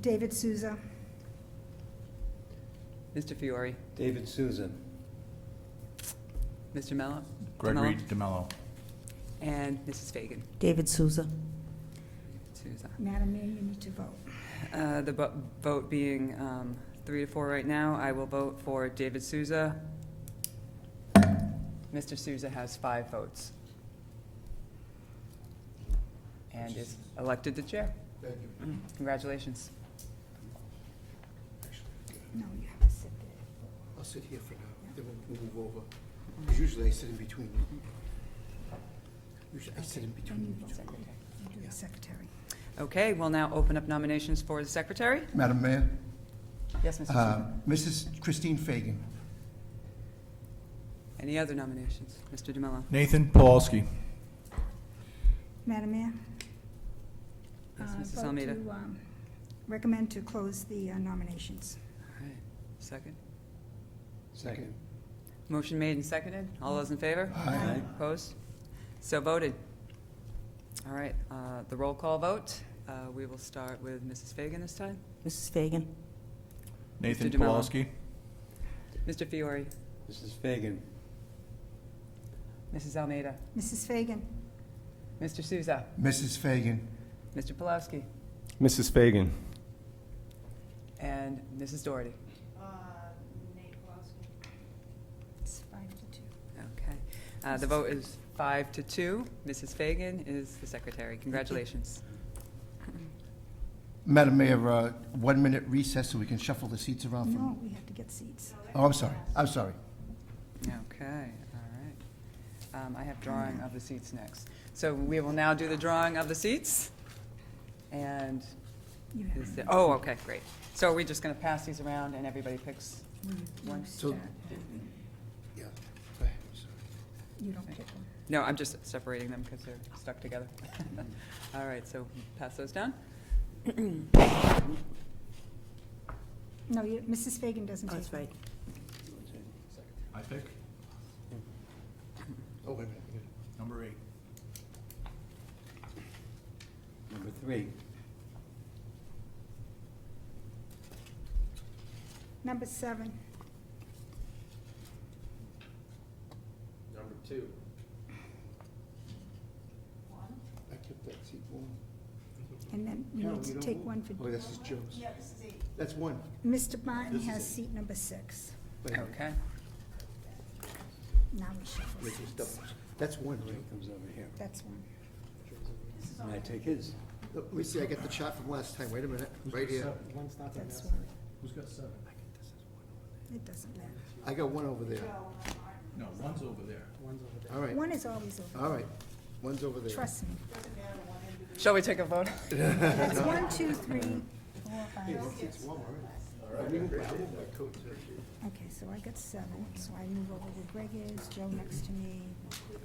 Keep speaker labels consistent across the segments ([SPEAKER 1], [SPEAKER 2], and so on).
[SPEAKER 1] David Souza.
[SPEAKER 2] Mr. Fiore,
[SPEAKER 3] David Souza.
[SPEAKER 2] Mr. Mello?
[SPEAKER 4] Gregory
[SPEAKER 2] DeMello,
[SPEAKER 4] DeMello.
[SPEAKER 2] And Mrs. Fagan.
[SPEAKER 5] David Souza.
[SPEAKER 2] Souza.
[SPEAKER 1] Madam Mayor, you need to vote.
[SPEAKER 2] Uh, The bu- vote being um, three to four right now, I will vote for David Souza. Mr. Souza has five votes. And is elected the chair.
[SPEAKER 6] Thank you.
[SPEAKER 2] Mm, Congratulations.
[SPEAKER 1] No, you have to sit there.
[SPEAKER 6] I'll sit here for now, then we'll move over. 'Cause Usually I sit in between. Usually I sit in between. each other.
[SPEAKER 1] You do the secretary.
[SPEAKER 2] Okay, we'll now open up nominations for the secretary.
[SPEAKER 6] Madam Mayor,
[SPEAKER 2] Yes, Mr.
[SPEAKER 6] uh,
[SPEAKER 2] Souza.
[SPEAKER 6] Mrs. Christine Fagan.
[SPEAKER 2] Any other nominations? Mr. DeMello?
[SPEAKER 4] Nathan Paulsky.
[SPEAKER 1] Madam Mayor?
[SPEAKER 2] Yes,
[SPEAKER 1] uh,
[SPEAKER 2] Mrs.
[SPEAKER 1] vote
[SPEAKER 2] Almeida.
[SPEAKER 1] to, um, Recommend to close the uh, nominations.
[SPEAKER 2] All right, second.
[SPEAKER 3] Second.
[SPEAKER 2] Motion made and seconded. All those in favor?
[SPEAKER 6] Aye.
[SPEAKER 2] Opposed? So voted. All right, uh, the roll call vote. Uh, We will start with Mrs. Fagan this time.
[SPEAKER 5] Mrs. Fagan.
[SPEAKER 4] Nathan
[SPEAKER 2] DeMello.
[SPEAKER 4] Paulsky.
[SPEAKER 2] Mr. Fiore,
[SPEAKER 3] Mrs. Fagan.
[SPEAKER 2] Mrs. Almeida,
[SPEAKER 1] Mrs. Fagan?
[SPEAKER 2] Mr. Souza,
[SPEAKER 6] Mrs. Fagan.
[SPEAKER 2] Mr. Pulaski,
[SPEAKER 7] Mrs. Fagan.
[SPEAKER 2] and Mrs. Doherty.
[SPEAKER 1] It's five to two.
[SPEAKER 2] Okay. Uh, The vote is five to two. Mrs. Fagan is the secretary. Congratulations.
[SPEAKER 6] Madam Mayor, uh, one minute recess so we can shuffle the seats around from.
[SPEAKER 1] No, we have to get seats.
[SPEAKER 6] Oh, I'm sorry, I'm sorry.
[SPEAKER 2] Okay, all right. Um, I have drawing of the seats next. So we will now do the drawing of the seats. And
[SPEAKER 1] You have
[SPEAKER 2] is
[SPEAKER 1] to
[SPEAKER 2] the, oh, okay, great. So are we just going to pass these around and everybody picks one?
[SPEAKER 6] So, yeah, go ahead, I'm sorry.
[SPEAKER 1] You don't pick one.
[SPEAKER 2] No, I'm just separating them because they're stuck together. All right, so pass those down.
[SPEAKER 1] No, you- Mrs. Fagan doesn't take
[SPEAKER 5] Oh, That's
[SPEAKER 1] one.
[SPEAKER 5] right.
[SPEAKER 4] I pick
[SPEAKER 6] Oh, wait a minute. wait
[SPEAKER 4] number eight.
[SPEAKER 3] Number three.
[SPEAKER 1] Number seven,
[SPEAKER 6] Number two. I kept that seat warm.
[SPEAKER 1] and then you
[SPEAKER 6] Carol,
[SPEAKER 1] need
[SPEAKER 6] you
[SPEAKER 1] to
[SPEAKER 6] don't
[SPEAKER 1] take
[SPEAKER 6] move.
[SPEAKER 1] one for,
[SPEAKER 6] Oh, this is Joe's. Yeah, this is eight. That's one.
[SPEAKER 1] Mr. Martin
[SPEAKER 6] This is
[SPEAKER 1] has
[SPEAKER 6] it.
[SPEAKER 1] seat number six.
[SPEAKER 6] Wait a minute.
[SPEAKER 2] Okay,
[SPEAKER 1] Now we shuffle
[SPEAKER 6] Wait, there's
[SPEAKER 1] seats.
[SPEAKER 6] doubles. That's one,
[SPEAKER 3] Joe
[SPEAKER 6] right?
[SPEAKER 3] comes over here.
[SPEAKER 1] That's one.
[SPEAKER 3] And I take his.
[SPEAKER 6] Let me see, I got the shot from last time, wait a minute, right here.
[SPEAKER 1] That's one. It doesn't matter.
[SPEAKER 6] I got one over there.
[SPEAKER 4] No, one's over there.
[SPEAKER 6] All right,
[SPEAKER 1] One is always over.
[SPEAKER 6] all right, one's over there.
[SPEAKER 1] Trust me.
[SPEAKER 2] shall we take a vote?
[SPEAKER 1] It's one, two, three, four, five, six.
[SPEAKER 6] It's warm, all right. I moved my- I moved my coat to-
[SPEAKER 1] Okay, so I got seven, so I move over where Greg is, Joe next to me.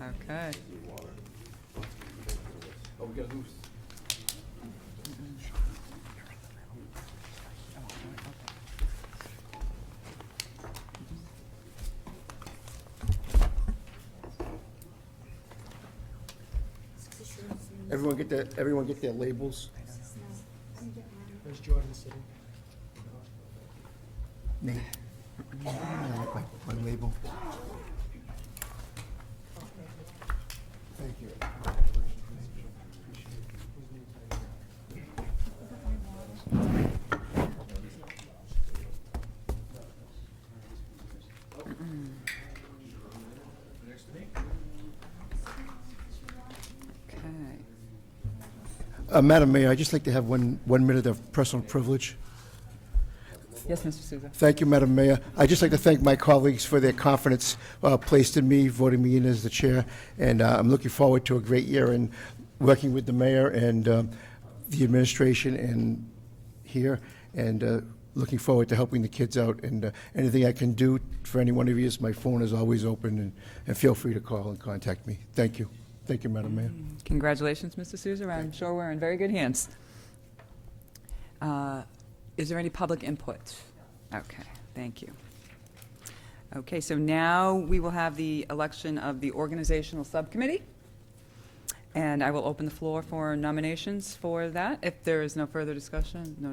[SPEAKER 2] Okay.
[SPEAKER 6] Oh, we gotta lose. Everyone get their, everyone get their labels?
[SPEAKER 8] Where's Jordan sitting?
[SPEAKER 6] Nate? I like My my label. Thank you.
[SPEAKER 2] Okay.
[SPEAKER 6] Uh, Madam Mayor, I'd just like to have one, one minute of personal privilege.
[SPEAKER 2] Yes, Mr. Souza.
[SPEAKER 6] Thank you, Madam Mayor. I'd just like to thank my colleagues for their confidence uh, placed in me, voting me in as the chair, and uh, I'm looking forward to a great year and working with the mayor and um, the administration and here, and uh, looking forward to helping the kids out, and uh, anything I can do for any one of you, is my phone is always open, and- and feel free to call and contact me. Thank you. Thank you, Madam Mayor.
[SPEAKER 2] Congratulations, Mr. Souza. I'm sure we're in very good hands. Uh, Is there any public input? Okay, thank you. Okay, so now we will have the election of the organizational subcommittee. And I will open the floor for nominations for that. If there is no further discussion, no